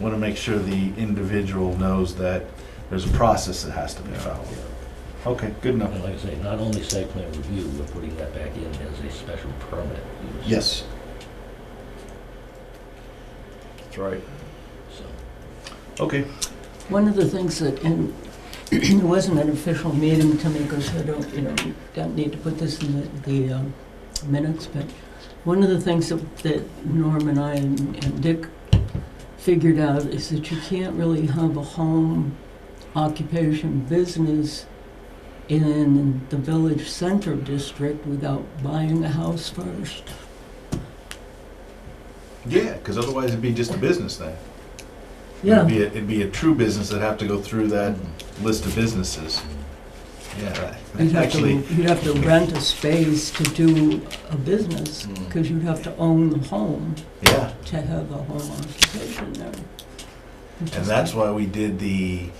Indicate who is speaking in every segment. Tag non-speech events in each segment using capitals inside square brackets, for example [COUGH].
Speaker 1: want to make sure the individual knows that there's a process that has to be followed. Okay, good enough.
Speaker 2: And like I say, not only site plan review, we're putting that back in as a special permit. use.
Speaker 1: Yes.
Speaker 3: That's right.
Speaker 2: So,
Speaker 1: Okay.
Speaker 4: One of the things that, and [CLEARS THROAT] it wasn't an official meeting to me because I don't, you know, don't need to put this in the, the um, minutes, but one of the things that, that Norm and I and, and Dick figured out is that you can't really have a home occupation business in the village center district without buying a house first.
Speaker 1: Yeah, because otherwise it'd be just a business thing.
Speaker 4: Yeah.
Speaker 1: It'd be a, it'd be a true business that'd have to go through that list of businesses. Yeah,
Speaker 4: You'd
Speaker 1: that-
Speaker 4: have to,
Speaker 1: actually,
Speaker 4: you'd have to rent a space to do a business,
Speaker 3: Mm.
Speaker 4: because you'd have to own the home
Speaker 1: yeah.
Speaker 4: to have a home occupation there.
Speaker 1: And that's why we did the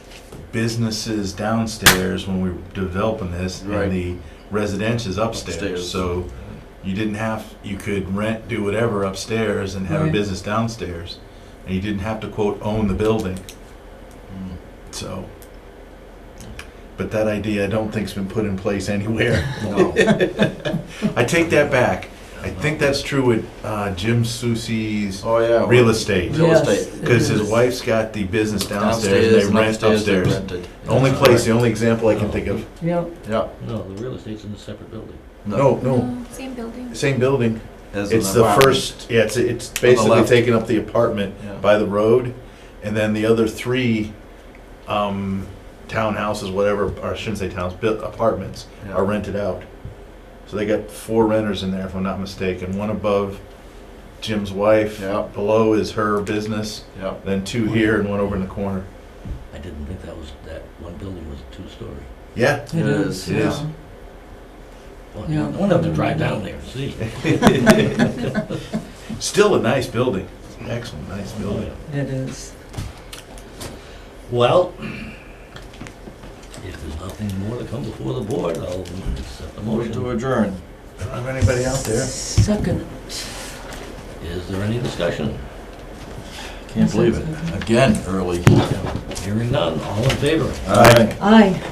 Speaker 1: businesses downstairs when we were developing this
Speaker 3: Right.
Speaker 1: and the residentials upstairs.
Speaker 3: Upstairs.
Speaker 1: So you didn't have, you could rent, do whatever upstairs and have a
Speaker 4: Right.
Speaker 1: business downstairs. And you didn't have to quote own the building.
Speaker 3: Mm.
Speaker 1: So, but that idea I don't think's been put in place
Speaker 4: [LAUGHS]
Speaker 1: anywhere.
Speaker 3: [LAUGHS] No.
Speaker 1: I take that back. I think that's true with uh, Jim Soucy's
Speaker 3: Oh, yeah.
Speaker 1: real estate.
Speaker 3: Real
Speaker 4: Yes,
Speaker 3: estate.
Speaker 4: it
Speaker 1: Because his
Speaker 4: is.
Speaker 1: wife's got the business downstairs, and they
Speaker 3: and
Speaker 1: rent
Speaker 3: upstairs they
Speaker 1: upstairs.
Speaker 3: rented.
Speaker 1: The Only
Speaker 3: That's
Speaker 1: place, the
Speaker 3: right.
Speaker 1: only example I can think of.
Speaker 4: Yep,
Speaker 3: Yeah.
Speaker 2: No, the real estate's in a separate building.
Speaker 1: No, no,
Speaker 5: Uh, Same building.
Speaker 1: same building.
Speaker 3: As an
Speaker 1: It's the
Speaker 3: apartment.
Speaker 1: first, yeah, it's, it's basically
Speaker 3: left.
Speaker 1: taking up the apartment
Speaker 3: Yeah.
Speaker 1: by the road. And then the other three, um, townhouses, whatever, or I shouldn't say towns, built apartments
Speaker 3: Yeah.
Speaker 1: are rented out. So they got four renters in there, if I'm not mistaken. One above Jim's wife.
Speaker 3: Yeah.
Speaker 1: Below is her business,
Speaker 3: Yeah.
Speaker 1: then two here and one over in the corner.
Speaker 2: I didn't think that was, that one building was a two-story.
Speaker 1: Yeah,
Speaker 4: it
Speaker 3: It
Speaker 4: is.
Speaker 3: is,
Speaker 1: it is.
Speaker 4: yeah.
Speaker 2: Well,
Speaker 4: Yeah.
Speaker 2: I wanna have to drive down there and
Speaker 1: [LAUGHS]
Speaker 2: see.
Speaker 1: [LAUGHS] still a nice building. Excellent, nice
Speaker 2: Oh,
Speaker 1: building.
Speaker 4: It is.
Speaker 2: Well, if there's nothing more to come before the board, I'll accept the
Speaker 3: Motion to
Speaker 2: motion.
Speaker 3: adjourn.
Speaker 1: I don't have anybody out there.
Speaker 4: Second.
Speaker 2: Is there any discussion?
Speaker 3: Can't believe it. Again, early.
Speaker 2: Hearing none, all in favor?
Speaker 3: Aye.
Speaker 4: Aye.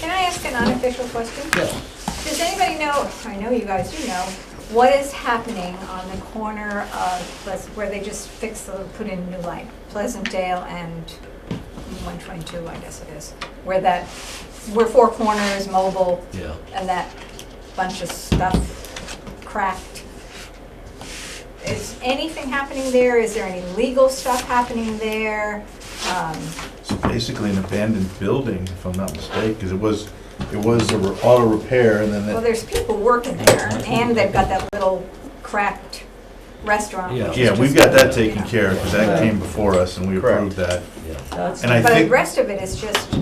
Speaker 5: Can I ask an unofficial question?
Speaker 2: Yes.
Speaker 5: Does anybody know, I know you guys do know, what is happening on the corner of, Pleas- where they just fixed, the- put in new light, Pleasantdale and 122, I guess it is, where that, where Four Corners, Mobile,
Speaker 2: Yeah.
Speaker 5: and that bunch of stuff cracked. Is anything happening there? Is there any legal stuff happening there? Um,
Speaker 1: It's basically an abandoned building, if I'm not mistaken, because it was, it was a re- auto repair and then
Speaker 5: Well,
Speaker 1: that,
Speaker 5: there's people working there, and they've got that little cracked restaurant. which is
Speaker 1: yeah, we've
Speaker 5: just-
Speaker 1: got that taken care of, because that came before us and we approved that.
Speaker 2: Yeah.
Speaker 4: That's,
Speaker 1: And I
Speaker 5: But the
Speaker 1: think,
Speaker 5: rest of it is just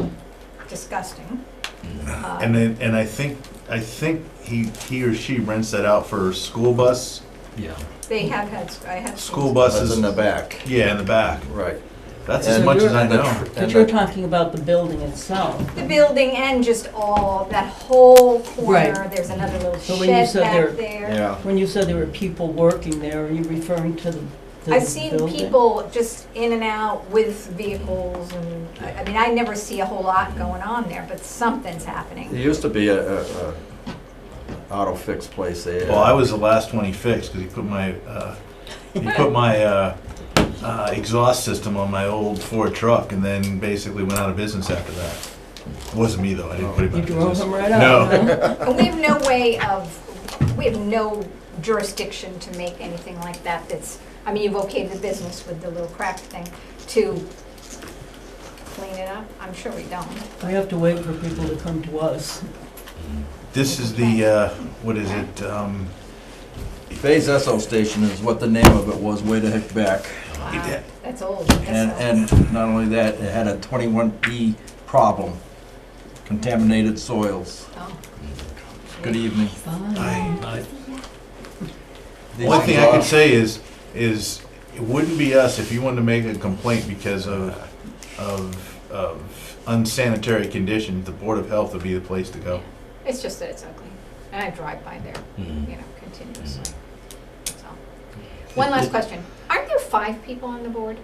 Speaker 5: disgusting.
Speaker 2: mm,
Speaker 5: Uh,
Speaker 1: and then, and I think, I think he, he or she rents that out for school bus,
Speaker 2: Yeah.
Speaker 5: They have had, I have.
Speaker 1: school
Speaker 3: Buses in the
Speaker 1: buses.
Speaker 3: back.
Speaker 1: Yeah, in the back.
Speaker 3: Right.
Speaker 1: That's
Speaker 4: So
Speaker 1: as much
Speaker 4: you're-
Speaker 1: as I
Speaker 3: And the
Speaker 1: know.
Speaker 3: tr- and
Speaker 4: but you're
Speaker 3: the-
Speaker 4: talking about the building itself.
Speaker 5: The building and just all, that whole corner,
Speaker 4: Right.
Speaker 5: there's another little
Speaker 4: But when you
Speaker 5: shed
Speaker 4: said there-
Speaker 5: back there.
Speaker 3: Yeah.
Speaker 4: When you said there were people working there, are you referring to the the
Speaker 5: I've seen
Speaker 4: building?
Speaker 5: people just in and out with vehicles, and, I I mean, I never see a whole lot going on there, but something's happening.
Speaker 3: There used to be a, a, a auto fix place there.
Speaker 1: Well, Oh, I was the last one he fixed, because he put my, uh, he put my, uh, uh, exhaust system on my old Ford truck and then basically went out of business after that. It Wasn't me though, I didn't put him out
Speaker 4: You
Speaker 1: of
Speaker 4: drove
Speaker 1: business.
Speaker 4: them right out.
Speaker 1: No.
Speaker 4: huh?
Speaker 5: And we have no way of, we have no jurisdiction to make anything like that that's, I mean, you've okayed the business with the little crack thing to clean it up. I'm sure we don't.
Speaker 4: We have to wait for people to come to us.
Speaker 1: This is the, uh, what is it, um,
Speaker 3: Bay's Esso Station is what the name of it was way the heck back.
Speaker 5: Wow,
Speaker 1: did.
Speaker 5: Uh, That's old.
Speaker 3: And,
Speaker 5: That's old.
Speaker 3: and not only that, it had a 21E problem, contaminated soils.
Speaker 5: Oh.
Speaker 3: Good e- evening.
Speaker 1: I,
Speaker 2: I-
Speaker 3: These
Speaker 1: one thing I
Speaker 3: are-
Speaker 1: could say is, is it wouldn't be us if you wanted to make a complaint because of, of, of unsanitary conditions, the Board of Health would be the place to go.
Speaker 5: It's just that it's ugly. And I drive by there,
Speaker 2: Mhm.
Speaker 5: you know,
Speaker 3: Mm.
Speaker 5: continuously. That's all. One last question. Aren't there five people on the board?